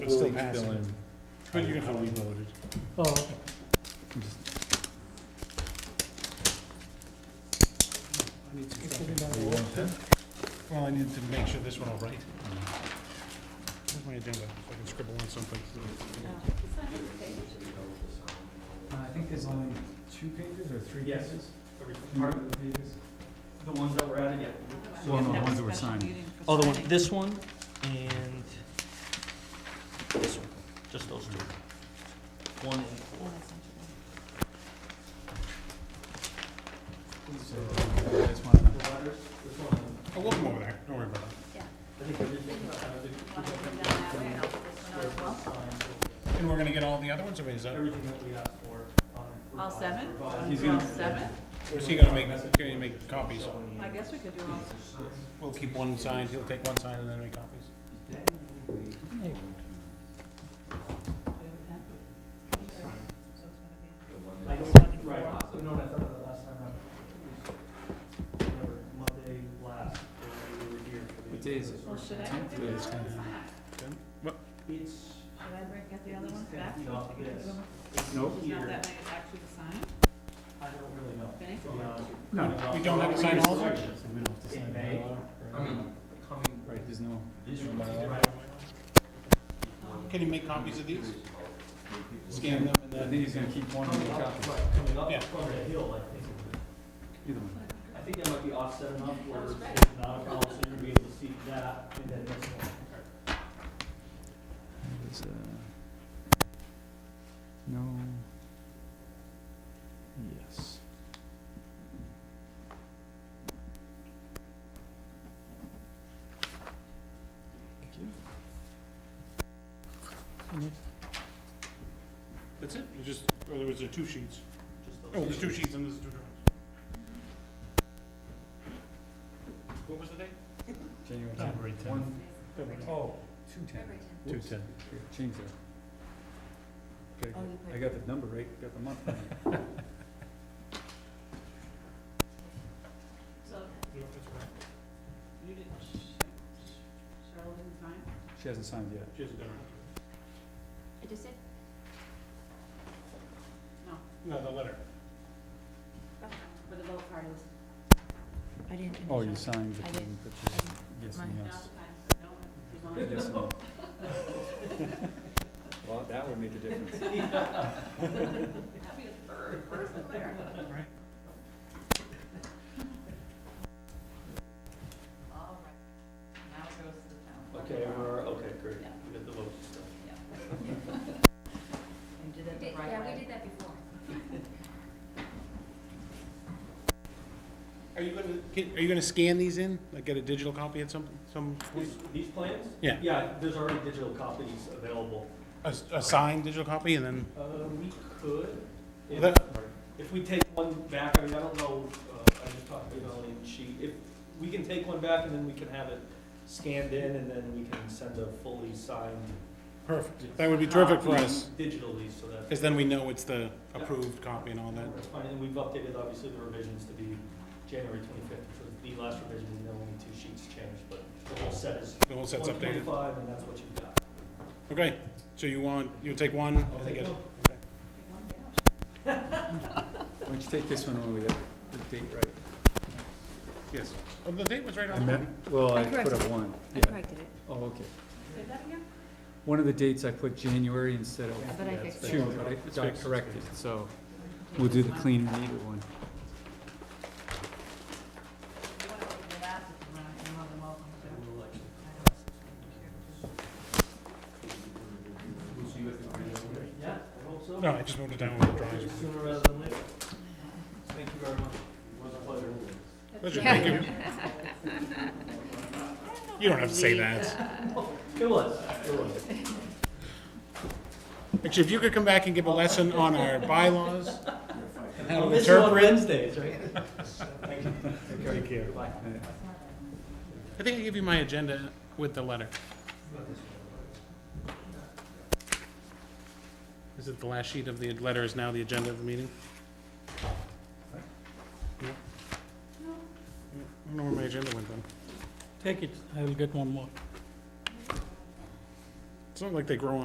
But it's still We'll each fill passing. in But you can How fill we in. voted. Oh, okay. I need to It's fill in in. that You want that? Well, I need to make sure this one all right. Mm. Where's my agenda? If I can scribble on something. I think there's only Two pages or three Yes. pages? part of the pages, the ones that were added, yeah. Well, no, the ones that were signed. Oh, the one, this one and this one, just those two. One and four. These So, are that's one of them. The letters, this one, Oh, we'll come over there. Don't worry about I think everything that I did. it. And we're gonna get all the other ones, I mean, is that, Everything that we asked for. um, All seven? revised. He's All gonna- seven? or is he gonna make, gonna make copies? I guess we could do all, We'll keep one signed, he'll take one signed and then make copies. Hey, I don't, right, no, I thought that last time out. It was whatever, Monday last, when we were here. for the- What day is it? well, should I Tenth get the day other is ones kind back? It's, Should I break out the other ones back? It's not this. it's Nope. Not here, that way, it's actually the sign, I don't really know. okay? To be honest. No, we don't have to sign all of them? So we don't have to In sign May. that law, I right? mean, coming Right, there's no. this no week, bylaw. right, Can you make copies of these? Scan them and I then, think he's gonna keep one of coming the up, copies, right, coming Yeah. up from the hill, I think. either one. I think that might be offset enough where That's it's right. not a problem, so you're gonna be able to see that and then this one. It's, uh, No. Yes. Thank you. that's it? You just, or there was there two sheets? Just those Oh, there's two. two sheets and there's two drawings. What was the date? January February tenth. One, February. oh, two ten. Two Whoops. ten. Change that. Okay, Oh, I you got the number right, got the month right. So, No, that's all right. you didn't, Cheryl didn't sign? She hasn't signed yet. She hasn't done I just did. No, it. No, the letter. for the both parties. I didn't. Oh, you signed the I thing, but you, yes, Mine. and No, yes. no, as Yes, long as- and no. Well, that would make a difference. That'd be the third person there. Oh, Right. All right, now it goes to the town. clerk. Okay, we're, okay, great, Yeah. we got the votes done. You did it the right way. that before. Are you gonna, can- are you gonna scan these in, like get a digital copy at some, some, These, these plans? Yeah. Yeah, there's already digital copies available. a, a signed digital copy and then? Uh, we could, if, That- if we take one back, I mean, I don't know, uh, I just talked to Melanie, and she, if, we can take one back and then we can have it scanned in and then we can send a fully signed. Perfect. That would be terrific for copy us, Digitally, so that. because then we know it's the approved copy and all that. That's fine, and we've updated, obviously, the revisions to be January twenty-fifth, which was the last revision, and then only two sheets changed, but the whole set is The whole one set's updated. twenty-five, and that's what you've got. Okay, so you want, you'll take one? I'll take it- one. okay. One down. Why don't you take this one when we get the date right? Yes. Oh, the date was right I on. meant, well, I I put up one, I yeah. corrected it, Oh, okay. Say that again? One of the dates I put January instead but I of fixed it. June, but I It's got fixed. corrected, so we'll do the clean and neat one. You wanna open your lap if you want, you're more than welcome to. Yeah, I hope so. No, I just moved it down with the drawings. Sooner rather than later. Thank you very much. It was a pleasure. Pleasure, thank you. You don't have to say that. It was, it was. Actually, if you could come back and give a lesson on our bylaws and how to I'll miss you on interpret. Wednesdays, right? Thank you. Take care. Goodbye. I think I gave you my agenda with the letter. Is it the last sheet of the letter is now the agenda of the meeting? No. I don't know where my agenda went then. Take it, I will get one more. It's not like they grow